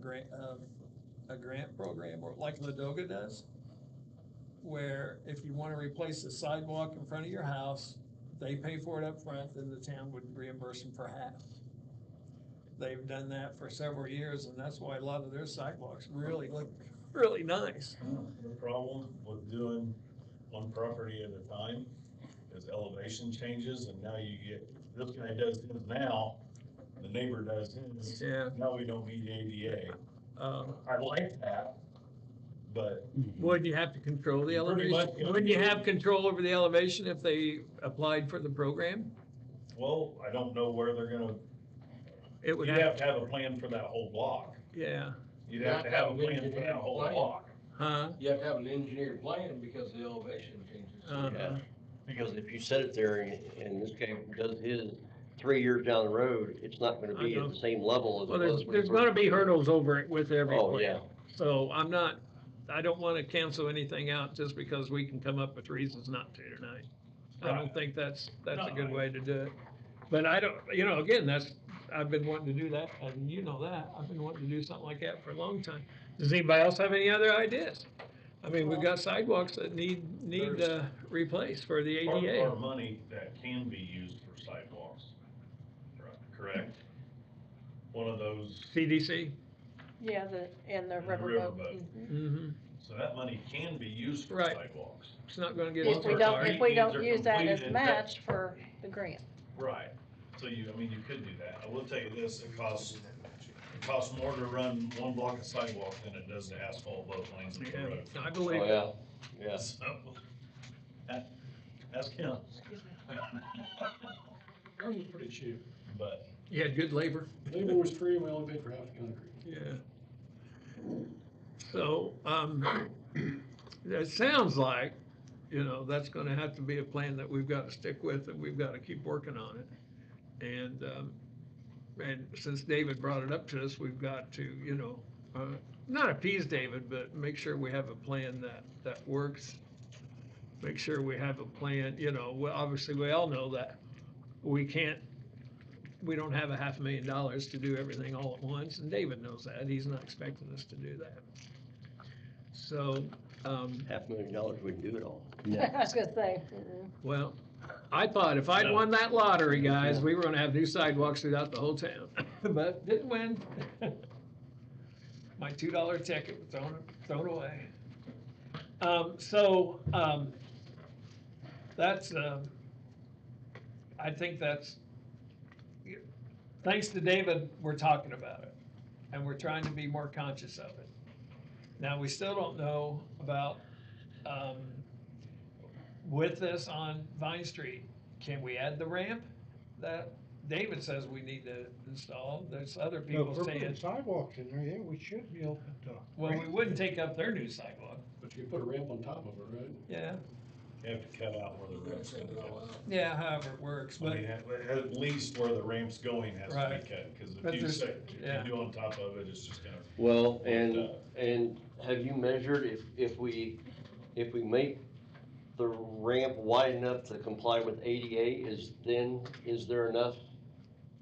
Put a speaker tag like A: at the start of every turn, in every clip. A: grant, um, a grant program, or like Ladoga does, where if you wanna replace the sidewalk in front of your house, they pay for it up front, then the town would reimburse them for half. They've done that for several years, and that's why a lot of their sidewalks really look really nice.
B: The problem with doing one property at a time is elevation changes and now you get, this guy does his now, the neighbor does his,
A: Yeah.
B: now we don't need ADA.
A: Um,
B: I like that, but
A: Would you have to control the
B: Pretty
A: elevation?
B: much, yeah.
A: Wouldn't you have control over the elevation if they applied for the program?
B: well, I don't know where they're gonna,
A: It would
B: you'd have
A: have,
B: to have a plan for that whole block.
A: yeah,
B: You'd have to have a plan for that whole block.
A: huh?
C: You have to have an engineered plan because the elevation changes.
A: Uh,
D: Because if you set it there and this guy does his three years down the road, it's not gonna
A: I
D: be
A: know.
D: at the same level as
A: Well,
D: it
A: there's,
D: was. when he
A: there's gonna
D: first-
A: be hurdles over it with every
D: Oh, yeah.
A: plan. So I'm not, I don't wanna cancel anything out just because we can come up with reasons not to tonight. I don't
B: Right.
A: think that's, that's a good
B: No.
A: way to do it. But I don't, you know, again, that's, I've been wanting to do that, and you know that, I've been wanting to do something like that for a long time. Does anybody else have any other ideas? I mean, we've got sidewalks that need, need, uh, replaced for the
B: Part of
A: ADA.
B: our money that can be used for sidewalks, correct? One of those
A: CDC,
E: Yeah, the, and the
B: And the
E: rubber
B: river
E: boat.
B: boat.
E: mhm.
A: mm-hmm,
B: So that money can be used for
A: Right.
B: sidewalks.
A: it's not gonna get.
E: If we
B: our
E: don't, if we
B: grant needs
E: don't
B: are
E: use that as
B: completed, that-
E: match for the grant.
B: Right. So you, I mean, you could do that. I will tell you this, it costs, it costs more to run one block of sidewalk than it does to asphalt both lanes of the
A: Yeah,
B: road.
A: I
D: Oh,
A: believe.
D: yeah, yeah.
B: So, that, that's Kim.
F: Ours was pretty cheap.
B: But,
A: You had good labor.
F: Labor was free and we only paid for half the concrete.
A: Yeah. So, um, it sounds like, you know, that's gonna have to be a plan that we've gotta stick with and we've gotta keep working on it. And, um, and since David brought it up to us, we've got to, you know, uh, not appease David, but make sure we have a plan that, that works. Make sure we have a plan, you know, well, obviously, we all know that we can't we don't have a half a million dollars to do everything all at once, and David knows that, he's not expecting us to do that. So, um,
D: Half a million dollars wouldn't do it all.
E: I was gonna say, mhm.
A: well, I thought if I'd won that lottery, guys, we were gonna have new sidewalks throughout the whole town, but didn't win. My two dollar ticket was thrown, thrown away. Um, so, um, that's, um, I think that's, thanks to David, we're talking about it, and we're trying to be more conscious of it. Now, we still don't know about, um, with this on Vine Street, can we add the ramp that David says we need to install? There's other people saying,
G: sidewalks in there, yeah, we should be open to.
A: well, we wouldn't take up their new sidewalk.
F: But you could put a ramp on top of it, right?
A: Yeah,
B: you have to cut out where the ramp's gonna go.
A: yeah, however it works,
B: I
A: but,
B: mean, at, at least where the ramp's going has to
A: Right.
B: be cut, cause
A: But
B: if you
A: there's-
B: say,
A: yeah.
B: if you do on top of it, it's just gonna.
D: Well,
B: Yeah.
D: and, uh, and have you measured if, if we, if we make the ramp wide enough to comply with ADA, is then, is there enough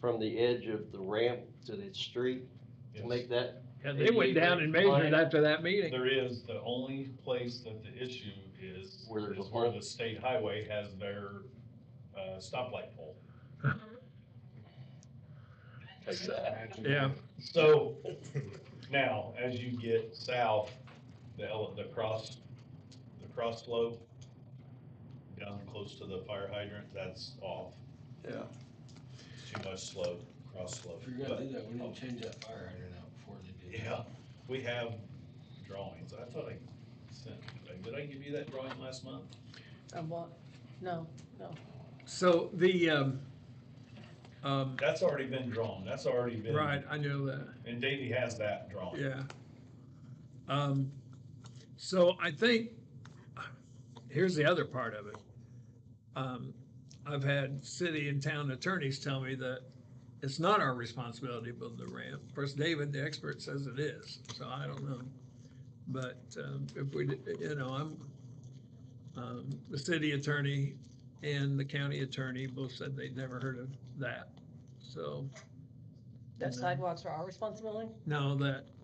D: from the edge of the ramp to the street to
B: Yes.
D: make that?
A: and they went down and measured it after that meeting.
B: There is, the only place that the issue is,
D: Where there's a
B: is where
D: pole.
B: the state highway has their, uh, stoplight pole.
A: Yeah,
B: So, now, as you get south, the ele, the cross, the cross slope, down close to the fire hydrant, that's off,
D: Yeah.
B: too much slope, cross slope.
C: If you're
B: But,
C: gonna do that, we need to change that fire hydrant out before they do. that.
B: Yeah, we have drawings, I thought I sent, did I give you that drawing last month?
E: I want, no,
A: so the, um, um,
B: That's already been drawn, that's already been.
A: right, I know that.
B: And Davey has that drawn.
A: Yeah. Um, so I think, here's the other part of it. Um, I've had city and town attorneys tell me that it's not our responsibility to build the ramp. Of course, David, the expert, says it is, so I don't know. But, um, if we, did- you know, I'm, um, the city attorney and the county attorney both said they'd never heard of that, so.
E: no. Sidewalks are our responsibility?
A: No, that